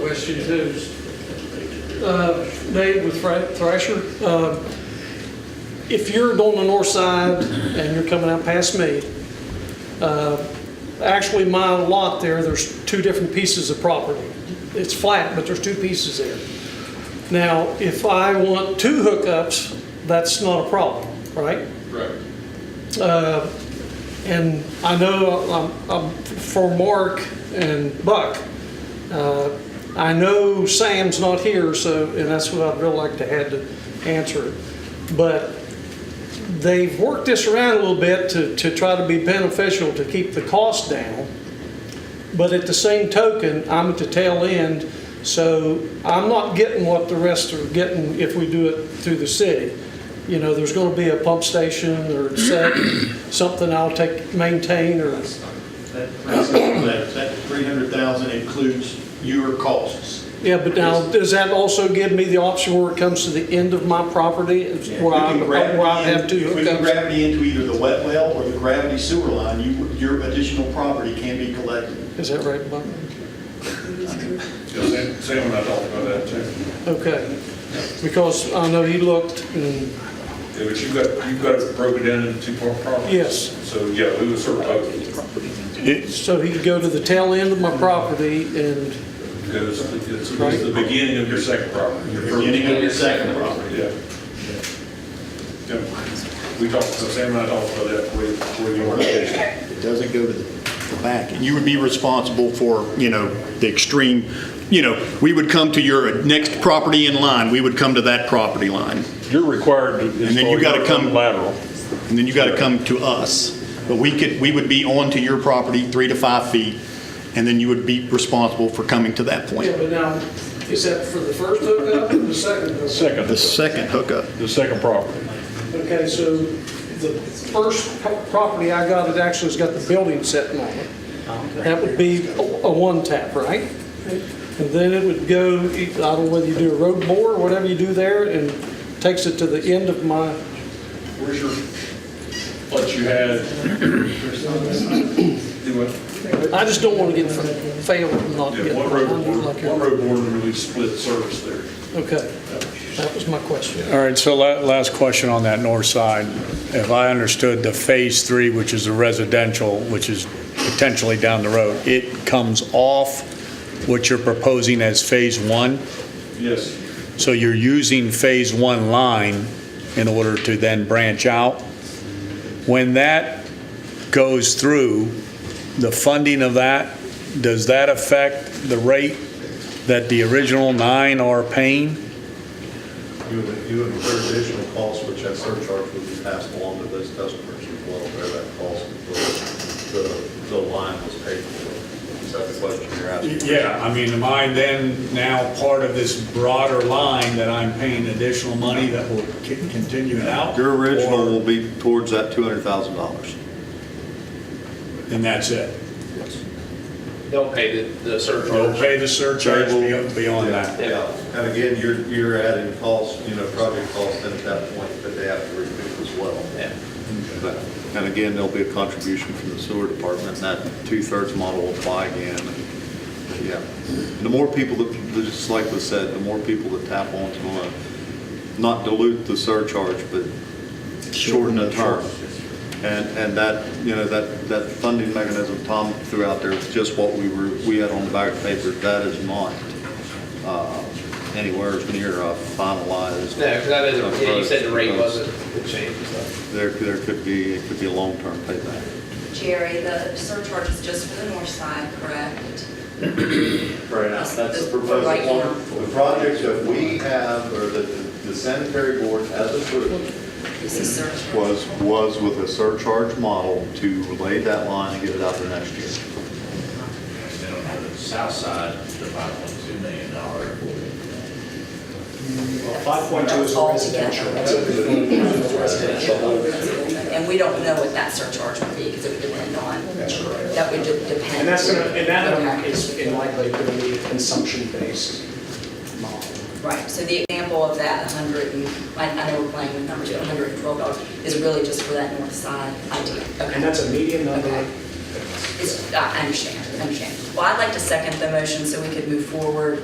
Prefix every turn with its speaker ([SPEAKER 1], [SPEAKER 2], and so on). [SPEAKER 1] question too. Uh, Dave with Thra- Thrasher, uh, if you're on the north side and you're coming out past me, uh, actually my lot there, there's two different pieces of property. It's flat, but there's two pieces there. Now, if I want two hookups, that's not a problem, right?
[SPEAKER 2] Right.
[SPEAKER 1] And I know, um, um, for Mark and Buck, uh, I know Sam's not here, so, and that's what I'd really like to have to answer. But they've worked this around a little bit to, to try to be beneficial to keep the cost down. But at the same token, I'm at the tail end, so I'm not getting what the rest are getting if we do it through the city. You know, there's gonna be a pump station or set, something I'll take, maintain or,
[SPEAKER 3] That, that, that three hundred thousand includes your costs.
[SPEAKER 1] yeah, but now, does that also give me the option where it comes to the end of my property? is
[SPEAKER 3] If we
[SPEAKER 1] Where I,
[SPEAKER 3] can grab
[SPEAKER 1] where I
[SPEAKER 3] me in-
[SPEAKER 1] have to
[SPEAKER 3] If we
[SPEAKER 1] hook
[SPEAKER 3] can
[SPEAKER 1] up?
[SPEAKER 3] grab me into either the wet well or the gravity sewer line, you, your additional property can be collected.
[SPEAKER 1] Is that right, Buck?
[SPEAKER 2] Yeah, Sam, Sam and I talked about that too.
[SPEAKER 1] Okay, because I know he looked and,
[SPEAKER 2] Yeah, but you've got, you've got it broken down into two part properties.
[SPEAKER 1] Yes.
[SPEAKER 2] So, yeah, we would sort of, hope
[SPEAKER 1] so he could go to the tail end of my property and,
[SPEAKER 2] because it's, it's the beginning of your second property. your first-
[SPEAKER 3] Beginning of your second property.
[SPEAKER 2] Yeah. Yeah. We talked, so Sam and I talked about that with, with your organization.
[SPEAKER 4] It doesn't go to the the back.
[SPEAKER 3] You would be responsible for, you know, the extreme, you know, we would come to your next property in line, we would come to that property line.
[SPEAKER 5] You're required to.
[SPEAKER 3] And then you gotta come-
[SPEAKER 5] Lateral.
[SPEAKER 3] And then you got to come to us. But we could, we would be onto your property three to five feet, and then you would be responsible for coming to that
[SPEAKER 1] yeah,
[SPEAKER 3] point.
[SPEAKER 1] but now, is that for the first hookup or the second hookup?
[SPEAKER 5] Second,
[SPEAKER 3] The
[SPEAKER 5] the
[SPEAKER 3] second hookup,
[SPEAKER 5] second property.
[SPEAKER 1] Okay, so the first pro- property I got, it actually has got the building set on it. That would be a a one tap, right? And then it would go, e, I don't know whether you do a road bore, or whatever you do there, and takes it to the end of my,
[SPEAKER 2] Where's your, what you had? Do what?
[SPEAKER 1] I just don't want to get fa- failed and not get.
[SPEAKER 2] Yeah, what road,
[SPEAKER 1] like
[SPEAKER 2] board-
[SPEAKER 1] here.
[SPEAKER 2] what road board really split service there?
[SPEAKER 1] Okay, that was my question.
[SPEAKER 6] All right, so la- last question on that north side. If I understood the Phase 3, which is the residential, which is potentially down the road, it comes off what you're proposing as Phase 1?
[SPEAKER 2] Yes.
[SPEAKER 6] So you're using Phase 1 line in order to then branch out? When that goes through, the funding of that, does that affect the rate that the original nine are paying?
[SPEAKER 7] You would, you would incur additional costs, which that surcharge would be passed along to those customers as well, where that cost, of the, the- the line was paid for. Is that the question you're asking?
[SPEAKER 6] Yeah, I mean, am I then now part of this broader line that I'm paying additional money that will c- continue it out?
[SPEAKER 7] Your original
[SPEAKER 6] Or-
[SPEAKER 7] will be towards that two hundred thousand dollars.
[SPEAKER 6] And that's it?
[SPEAKER 8] They'll pay the, the
[SPEAKER 6] You'll
[SPEAKER 8] surcharge.
[SPEAKER 6] pay the surcharge be- beyond that?
[SPEAKER 7] Yeah, and again, you're, you're adding costs, you know, project costs in at that point, but they have to recoup as well.
[SPEAKER 8] Yeah.
[SPEAKER 7] But- And again, there'll be a contribution from the sewer department, and that two-thirds model will apply again. and, Yeah. The more people that, just like was said, the more people that tap onto it, not dilute the surcharge, but shorten the term. And, and that, you know, that, that funding mechanism Tom threw out there is just what we were, we had on the back paper. That is not uh, anywhere near uh,
[SPEAKER 8] No,
[SPEAKER 7] finalized.
[SPEAKER 8] 'cause that isn't, yeah, you said the rate wasn't, it changed and stuff.
[SPEAKER 7] There, there could be, it could be a long-term payback.
[SPEAKER 9] Jerry, the surcharge is just for the north side, correct?
[SPEAKER 7] Right
[SPEAKER 9] now. That's the proposal. Right now.
[SPEAKER 7] The projects that we have, or that the- the sanitary board has approved,
[SPEAKER 9] This is surcharge.
[SPEAKER 7] was, was with a surcharge model to lay that line and get it out there next year.
[SPEAKER 10] Then on the south side, the five point two million dollar.
[SPEAKER 3] Five point two is residential.
[SPEAKER 9] And we don't know what that surcharge would be because it would depend on. That's right. That would just depend.
[SPEAKER 10] And that's gonna, and that um,
[SPEAKER 9] Okay.
[SPEAKER 10] is in likely gonna be a consumption-based model.
[SPEAKER 9] Right, so the example of that 100, and I I know we're playing with numbers, but $112 is really just for that north side idea. Okay.
[SPEAKER 10] And that's a median number.
[SPEAKER 9] Okay. It's- I I understand, I understand. Well, I'd like to second the motion so we could move forward